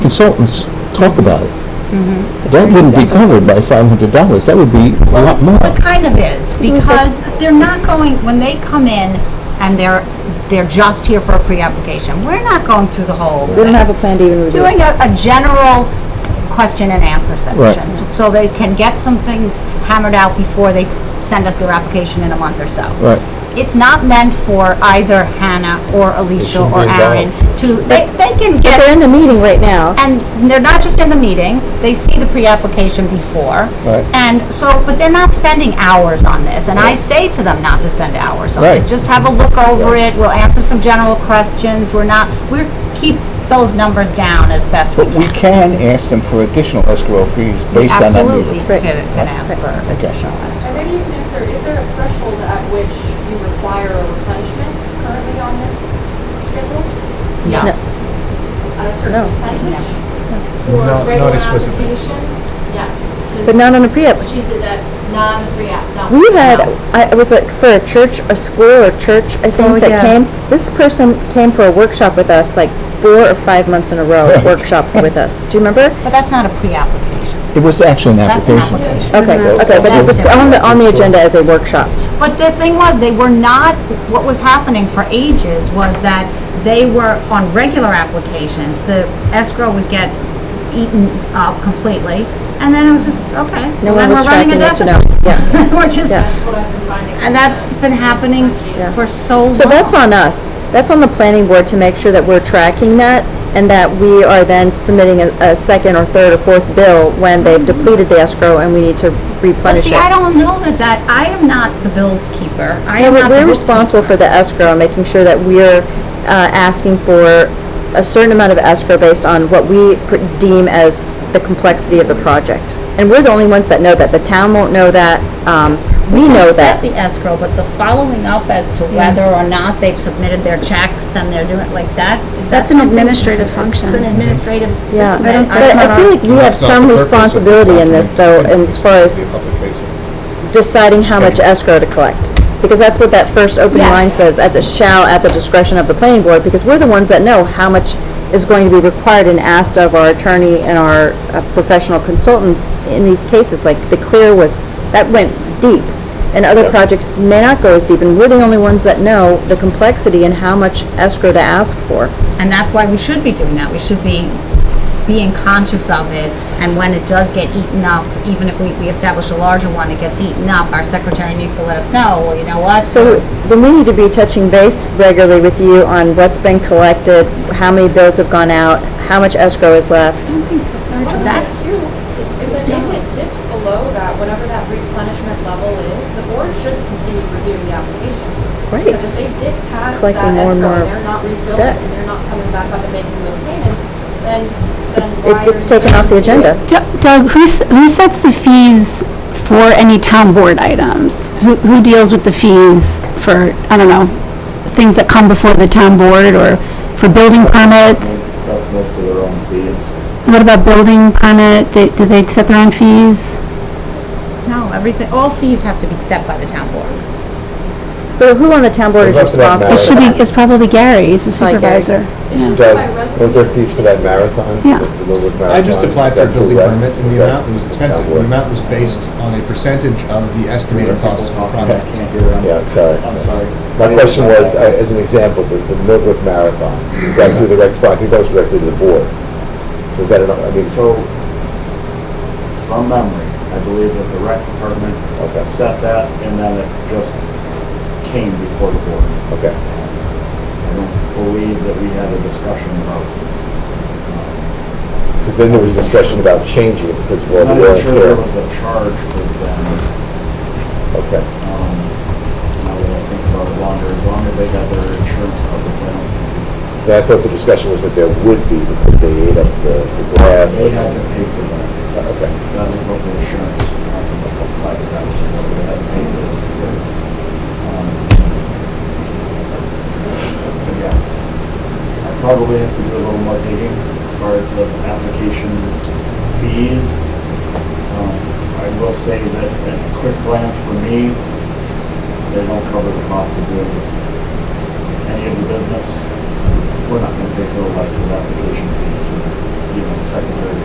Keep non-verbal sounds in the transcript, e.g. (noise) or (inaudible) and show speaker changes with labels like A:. A: consultants talk about it.
B: Mm-hmm.
A: That wouldn't be covered by five hundred dollars, that would be a lot more.
B: It kind of is, because they're not going, when they come in and they're, they're just here for a pre-application, we're not going through the whole.
C: We don't have a plan to even review.
B: Doing a, a general question and answer
A: Right.
B: section, so- so they can get some things hammered out before they send us their application in a month or so.
A: Right.
B: It's not meant for either Hannah or Alicia
D: shouldn't
B: or
D: be
B: Aaron to, they, they can
C: But
B: get
C: They're in the meeting right now.
B: and they're not just in the meeting, they see the pre-application before.
A: Right.
B: And so, but they're not spending hours on this, and I say to them not to spend hours on
A: Right.
B: it. Just have a look over it, we'll answer some general questions, we're not, we're, keep those numbers down as best we
D: But we
B: can.
D: can ask them for additional escrow fees based on that
B: Absolutely,
D: meeting.
B: can,
C: Right.
B: can ask for additional.
E: And maybe you can answer, is there a threshold at which you require a replenishment currently on this schedule?
B: Yes.
E: At a certain
C: No.
E: percentage?
F: Not- not
E: For regular
F: explicitly.
E: application? Yes.
C: But not on a pre-app.
E: She did that, not on the pre-app, no.
C: We had,
E: No.
C: I, it was like for a church, a school or church, I
B: Oh,
C: think, that came. This person came for a workshop with us, like four or five months in a row, workshop with us. Do you remember?
B: But that's not a pre-application,
A: It was actually an
B: that's an
A: application.
B: application.
C: Okay, okay, but it was on the, on the agenda as a workshop.
B: But the thing was, they were not, what was happening for ages was that they were on regular applications, the escrow would get eaten up completely, and then it was just, okay, well,
C: No one
B: then
C: was
B: we're running
C: tracking
B: a
C: it to
B: deficit.
C: know.
B: (laughs)
C: Yeah.
B: We're just,
C: Yeah.
E: That's what I've been finding.
B: and that's been happening for so long.
C: So that's on us. That's on the planning board to make sure that we're tracking that and that we are then submitting a, a second or third or fourth bill when they've depleted the escrow and we need to
B: But
C: replenish
B: see, I
C: it.
B: don't know that that, I am not the bills keeper. I
C: Yeah,
B: am
C: we're,
B: not the
C: we're
B: bookkeeper.
C: responsible for the escrow, and making sure that we're, uh, asking for a certain amount of escrow based on what we pr- deem as the complexity of the project. And we're the only ones that know that. The town won't know that, um, we know
B: can set
C: that.
B: the escrow, but the following up as to whether or not they've submitted their checks and they're doing, like that, that's
G: That's an
B: something-
G: administrative
B: It's an
G: function.
B: administrative thing
C: Yeah,
B: that
C: but
B: I-
C: I feel like we have
F: That's not
C: some
F: the purpose of this
C: responsibility in this though,
F: document.
C: as far as deciding how much escrow to collect. Because that's what that first opening line
B: Yes.
C: says, at the shall, at the discretion of the planning board, because we're the ones that know how much is going to be required and asked of our attorney and our uh, professional consultants in these cases, like the clear was, that went deep. And other projects may not go as deep, and we're the only ones that know the complexity and how much escrow to ask for.
B: And that's why we should be doing that. We should be being conscious of it. And when it does get eaten up, even if we, we establish a larger one, it gets eaten up, our secretary needs to let us know, well, you know what?
C: So then we need to be touching base regularly with you on what's been collected, how many bills have gone out, how much escrow is left.
B: That's,
E: Is that if it dips below that, whatever that replenishment level is, the board should continue reviewing the application.
C: Right.
E: Because if they dip past that
C: Collecting more and
E: escrow and
C: more
E: they're not refilling
C: debt.
E: and they're not coming back up and making those payments, then, then
C: It
E: why are
C: gets
E: you
C: taken off the
E: continuing to do it?
C: agenda.
G: Doug, who, s- who sets the fees for any town board items? Who, who deals with the fees for, I don't know, things that come before the town board or for building permits? What about building permit? They, do they set their own fees?
B: no, everything, all fees have to be set by the town board.
C: But who on the town board is
D: Well, that's what
C: responsible?
G: It
D: matters.
G: should be, it's probably Gary, he's the
C: Probably Gary.
G: supervisor.
E: It should be by
D: Doug,
E: resolution.
D: was there fees for that marathon?
G: Yeah.
D: The Millwood
F: I just
D: Marathon?
F: applied
D: Is
F: for a
D: that
F: building
D: correct?
F: permit, and
D: Is
F: the
D: that-
F: amount was
D: is that
F: expensive. The
D: correct?
F: amount was based on a percentage of the estimated cost of the project.
D: Yeah, sorry. I'm sorry. My question was, uh, as an example, the the Millwood Marathon, is that through the rec department? I think that was directly to the board. So is that, enough? I mean,
H: So, from memory, I believe that the rec department
D: Okay.
H: set that and then it just came before the board.
D: okay.
H: I don't believe that we had a discussion about,
D: Because then there was discussion about changing it because, well,
H: I'm
D: we
H: not
D: weren't
H: even sure there
D: clear.
H: was a charge for them.
D: Okay.
H: Um, Now that I think about it longer, as long as they got their insurance covered, I don't think
D: Then I thought the discussion was that there would be because they ate up the the grass.
H: they
D: but-
H: had to pay for that.
D: Uh, Okay.
H: That is what the insurance company applied, that was what they had paid Yeah. I probably have to do a little more digging as far as the application fees. Um, I will say that at a quick glance for me, they don't cover the cost of doing any of the business. We're not gonna pay for the license application fees, or, you know,